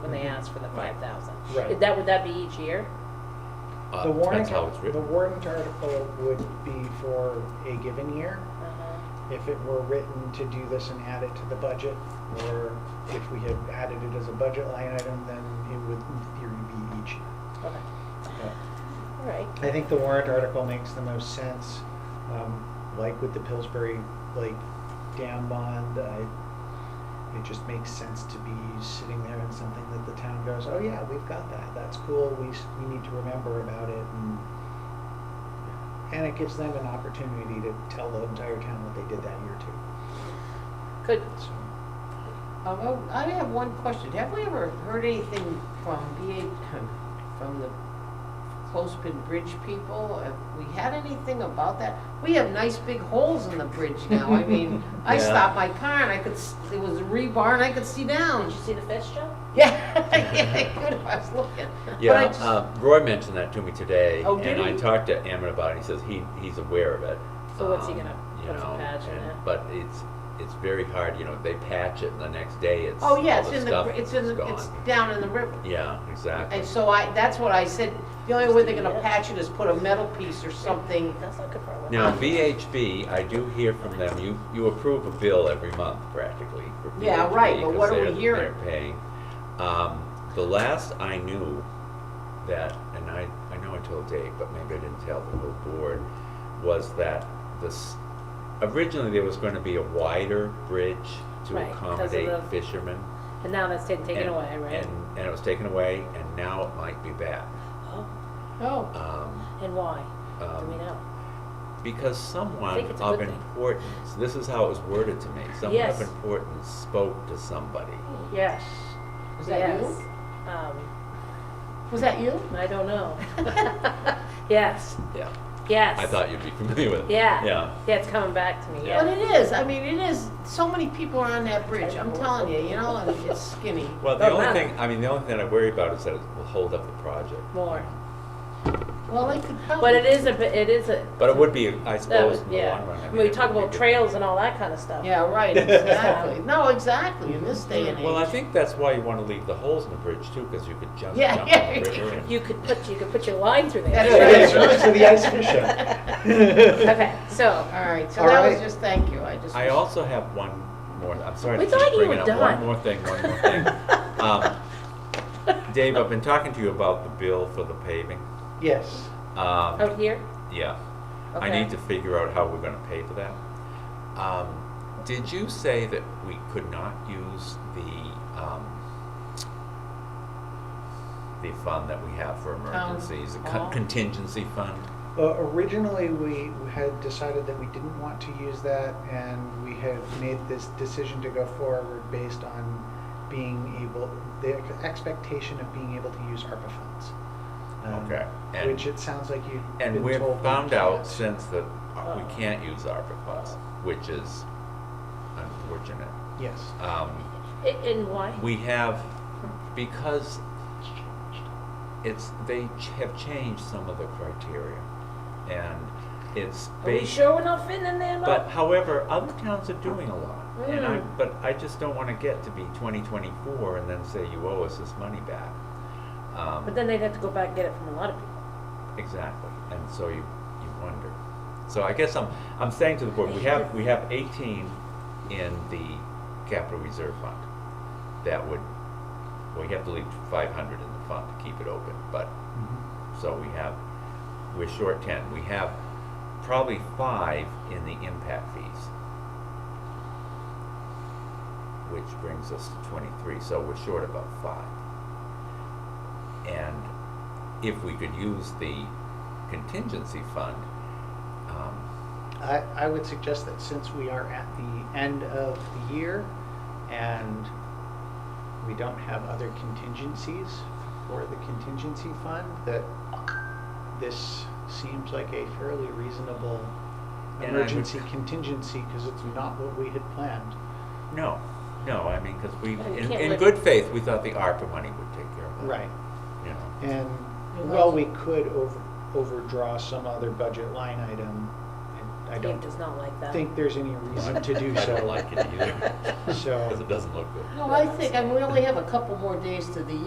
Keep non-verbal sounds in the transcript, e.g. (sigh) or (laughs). when they asked for the five thousand. Right. Is that, would that be each year? The Uh, warrant, That's how it's the written. warrant article would be for a given year. Uh-huh. If it were written to do this and add it to the budget, or if we had added it as a budget line item, then it would in theory be each. year. Okay, But all right. I think the warrant article makes the most sense, um, like with the Pillsbury Lake dam bond, I, it just makes sense to be sitting there and something that the town goes, oh yeah, we've got that, that's cool, we, s- we need to remember about it and and it gives them an opportunity to tell the entire town what they did that year too. Could, So, Um, oh, I have one question. Have we ever heard anything from BH, from the Closepin Bridge people? Have we had anything about that? We have nice big holes in the bridge now. (laughs) I mean, I Yeah. stopped my car and I could, s- it was a rebar and I could see did (laughs) down. you see the fish jump? Yeah, (laughs) yeah, I could, I was looking. Yeah, But I just- uh, Roy mentioned that to me today, Oh, did and I he? talked to Ammon about it, he says he, he's aware of it. So what's he Um, gonna you put some know, patch in and- it? But it's, it's very hard, you know, they patch it, and the next day it's, all Oh, yeah, the it's in the, stuff br- it's in, is the- it's gone. down in the river. Yeah, exactly. And so I, that's what I said, the only way they're gonna Yeah. patch it is put a metal piece or something. Uh, That's not good for a living. Now, VHB, I do hear from them, you, you approve a bill every month practically for VHB. Yeah, right, but what 'cause are we they're- hearing? They're paying. Um, the last I knew that, and I, I know I told Dave, but maybe I didn't tell the whole board, was that this, originally there was gonna be a wider bridge Right, to 'cause of accommodate the- fishermen. And now that's taken, taken and- away, right? And, and it was taken away, and now it might be back. Oh, Oh. Um, and why? Do um, we know? because someone think it's a of good thing. importance, this is how it was worded to me, someone Yes. of importance spoke to somebody. Yes. Was that you? Yes. Um, Was that you? I don't (laughs) know. Yes, Yeah. yes. I thought you'd be familiar with it. Yeah. Yeah. Yeah, it's coming back to me, Yeah. But yeah. it is, I mean, it is, so many people are on that bridge, I'm telling you, you know, and it's skinny. Well, the Doesn't only matter. thing, I mean, the only thing I worry about is that it will hold up the project. More. Well, they could probably. But it is a, bit- it is a, But it would be, I that suppose, was, in the yeah. long run. I I mean, mean, we it talk would be about good. trails and all that kind of stuff. Yeah, (laughs) right, exactly. No, exactly, in this day and age. Well, I think that's why you want to leave the holes in the bridge too, because you could just Yeah, jump yeah, on the river (laughs) and. You could put, you could put your line through That's there. right. Yeah, so- so the ice fish up. Okay, so, Oh, All right, so All that was right. just, thank you, I (laughs) just. I also have one more, I'm sorry We to thought keep you bringing were up done. one more thing, one more (laughs) thing. Um, Dave, I've been talking to you about the bill for the paving. Yes, Um, out here? yeah, I Oh, Okay. need to figure out how we're gonna pay for that. Um, did you say that we could not use the, um, the fund that we have for emergencies, the hall? con- contingency fund? Uh, originally, we had decided that we didn't want to use that, and we had made this decision to go forward based on being able, the expectation of being able to use ARPA funds. Um, Okay, and- Which it sounds like you've And been we've told. we found out can't. since that uh, Oh. we can't use ARPA funds, which is unfortunate. Yes. Um, I- And why? We have, because it's, they ch- have changed some of the criteria, and it's Are we based. sure we're not fitting in there, Mo? But however, other towns are doing a lot, and I, Mm. but I just don't wanna get to be twenty twenty-four and then say you owe us this money back. Um, But then they'd have to go back and get it from a lot of people. Exactly, and so you, you wonder. So I guess I'm, I'm saying to the board, we have, we have eighteen in the capital reserve fund. That would, we have to leave five hundred in the fund to keep it open, but, Mm-hmm. so we have, we're short ten. We have probably five in the impact fees. Which brings us to twenty-three, so we're short about five. And if we could use the contingency fund, um, I, I would suggest that since we are at the end of the year and we don't have other contingencies for the contingency fund, that this seems like a fairly reasonable And I would- emergency contingency, because it's not what we had planned. no, no, I mean, because we, Well, we in, can't in live- good faith, we thought the ARPA money would take care of that. Right. You know, And, Well, well, that's- we could over, overdraw some other budget line item and I Dave don't does not like that. think there's any reason to do so. I don't like it either, So- because it doesn't look good. No, I think, I mean, we only have a couple more days to the